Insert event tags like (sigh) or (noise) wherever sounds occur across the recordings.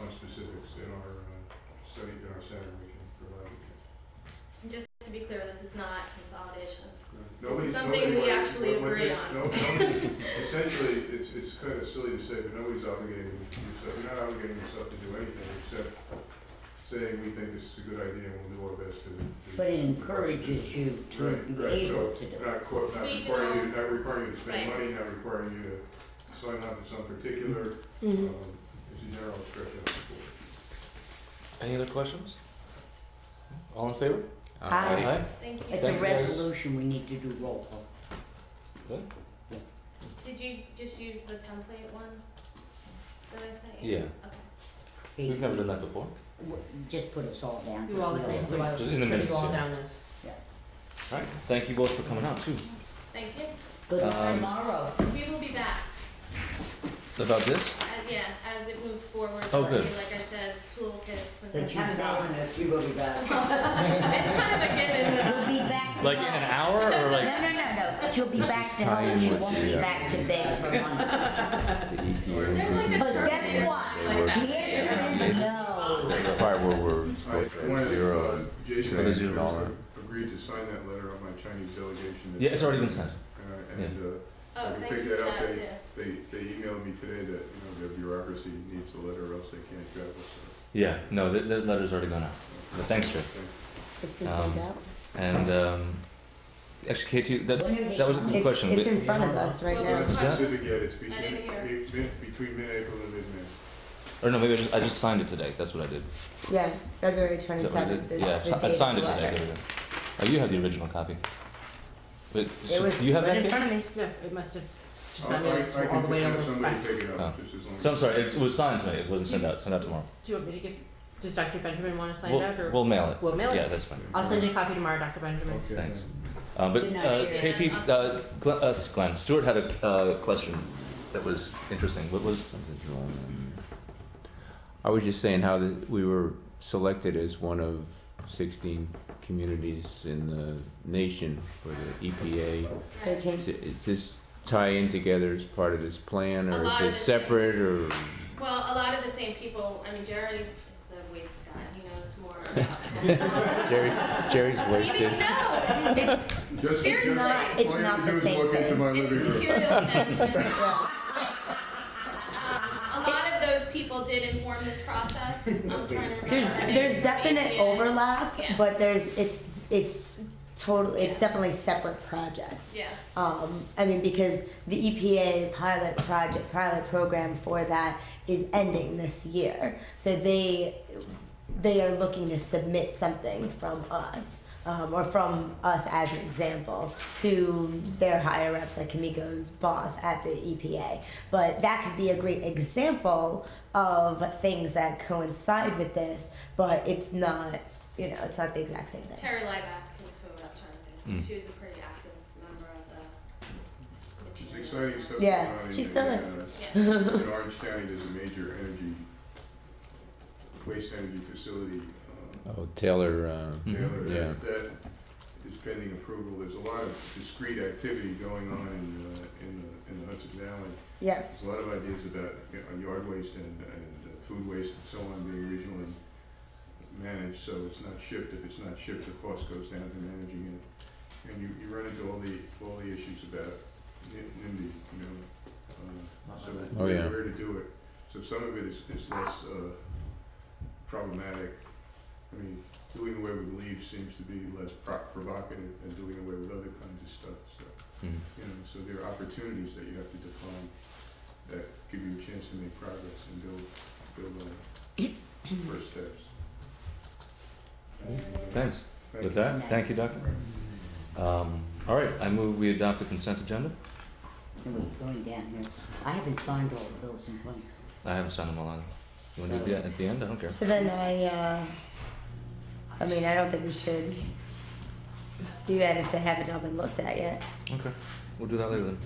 uh, is not consolidation. Nobody- something nobody we worried- actually what- what agree this- on. no- nobody- (laughs) Essentially, it's, it's kind of silly to say, but nobody's obligating yourself, you're not obligating yourself to do anything except saying we think this is a good idea and we'll do our best to. to- But it encourages you to Right, be right, able so to do it. Not co- not We requiring you, don't- not requiring you to spend Right. money, not requiring you to sign up to some particular, Mm-hmm. Mhm. um, it's a general expression of support. Any other questions? All in favor? Aye. Thank you. It's a Thank you, guys. resolution, we need to do roll call. Did you just use the template one that I sent you? Yeah, Okay. we've never done that before. W- Just put us all down. You all just agree, know. so I Just was in the pretty minutes, all yeah. down this. All right, thank you both for coming out too. Thank you. Good Um, tomorrow. We will be back, About this? uh, yeah, as it moves forward, Oh, like, good. like I said, toolkits and The things like time's that. (laughs) on (laughs) us, we will be back. It's kind of a given oh, with We'll be us. (laughs) back. Like in an hour or No, like? no, no, no, she'll be This back is to home, time she with won't be the, uh, back to bed for months. The EPA. There's like a But term guess there, what? like that. The answer is no. The part where we're I, supposed one to of the, zero. Jason, another zero actually dollar. agreed to sign that letter on my Chinese delegation. Yeah, it's already been sent. Uh, and, uh, Oh, We thank picked you that for up that there. too. They, they emailed me today that, you know, their bureaucracy needs the letter or else they can't travel, so. Yeah, no, the, the letter's already gone out. But thanks, Trey. It's been Um, sent out. And um, actually, Katie, that's, When did they that was a come? good question. It's We- in front of us right Well, It's now. not Is that- specific yet, it's between, I didn't hear. it- mid- between mid-April and mid-May. Or no, maybe I just, I just signed it today. That's what I did. Yeah, February Is that what I twenty-seventh did? is Yeah, the date of I signed the it today. letter. There we go. Oh, you have the original copy. But It was you have right that? in Katie? front of me. Yeah, it must have just not I'll- been I- it's all the way I can over have the somebody back. pick it up, just as long as. Oh. So I'm sorry, it was signed today. It wasn't sent out. Sent out tomorrow. Do you want me to give, does Dr. Benjamin want to sign We'll, it out or? we'll mail it. We'll mail Yeah, it. that's fine. I'll send you a copy tomorrow, Dr. Benjamin. Okay. Thanks. Uh, but Good night, uh, Adrian. Katie, uh, Glenn, uh, Glenn, Stuart had a uh, question that was interesting. What was? I was just saying how the, we were selected as one of sixteen communities in the nation for the EPA. Right. Thirteen. Is, it- is this tie in together as part of this plan, A or lot is of it it's- separate, or? Well, a lot of the same people, I mean, Jerry is the waste guy, he knows more about. Jerry, (laughs) Jerry's He didn't wasted. know, It's, Just, just, all Seriously. you have It's not to the do is same walk into thing. my it's living room. materials management. yeah. Um, A lot of those people did inform this process, I'm trying to remember. There's there's definite overlap, Yeah. but there's it's it's total it's definitely separate projects. Yeah, Um, I mean, because the EPA pilot project, pilot program for that is ending this year. So they, they are looking to submit something from us, um, or from us as an example to their higher ups, like Kamiko's boss at the EPA. But that could be a great example of things that coincide with this, but it's not, you know, it's not the exact same thing. Terry Lieback is who I was trying to think, Hmm. of. Mm. she was a pretty active member of the. It's exciting stuff. Yeah, going on she in- still in, is. uh, Yeah, In Orange County, there's a major energy, waste energy facility, um, Oh, Taylor, uh, Mm-hmm. The other, Yeah. that, that is pending approval, there's a lot of discrete activity going on in, uh, in the, in the Hudson Valley. Yeah. There's a lot of ideas about, you know, yard waste and, and uh, food waste and so on being regionally managed, so it's not shipped, if it's not shipped, the cost goes down to managing it. And you, you run into all the, all the issues about N- NIMBY, you know, uh, so Oh, yeah. where, where to do it. So some of it is, is less, uh, problematic. I mean, doing away with leaves seems to be less pro- provocative than doing away with other kinds of stuff, so Mm. you know, so there are opportunities that you have to define that give you a chance to make progress and build, build on first steps. Thanks. Thank With you. that, thank you, Doctor. Um, all right, I move we adopt the consent agenda. No, wait, going down here, I haven't signed all the bills and claims. I haven't signed them all either. You want to do it at the- at the end? I don't care. So then I, uh, I mean, I don't think we should do that if they haven't all been looked at yet. Okay, we'll do that later then.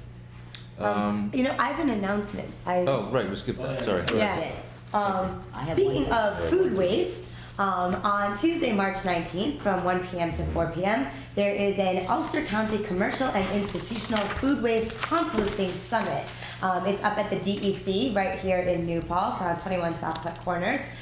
Um, Um, You know, I have an announcement. I, oh, right, we skipped that. Sorry. yeah. Um, I have speaking one. of food waste, um, on Tuesday, March 19th, from 1 p.m. to 4 p.m., there is an Ulster County Commercial and Institutional Food Waste Composting E Summit. Um, it's up at the DEC right here in New Paltz on 21 South Putt Corners.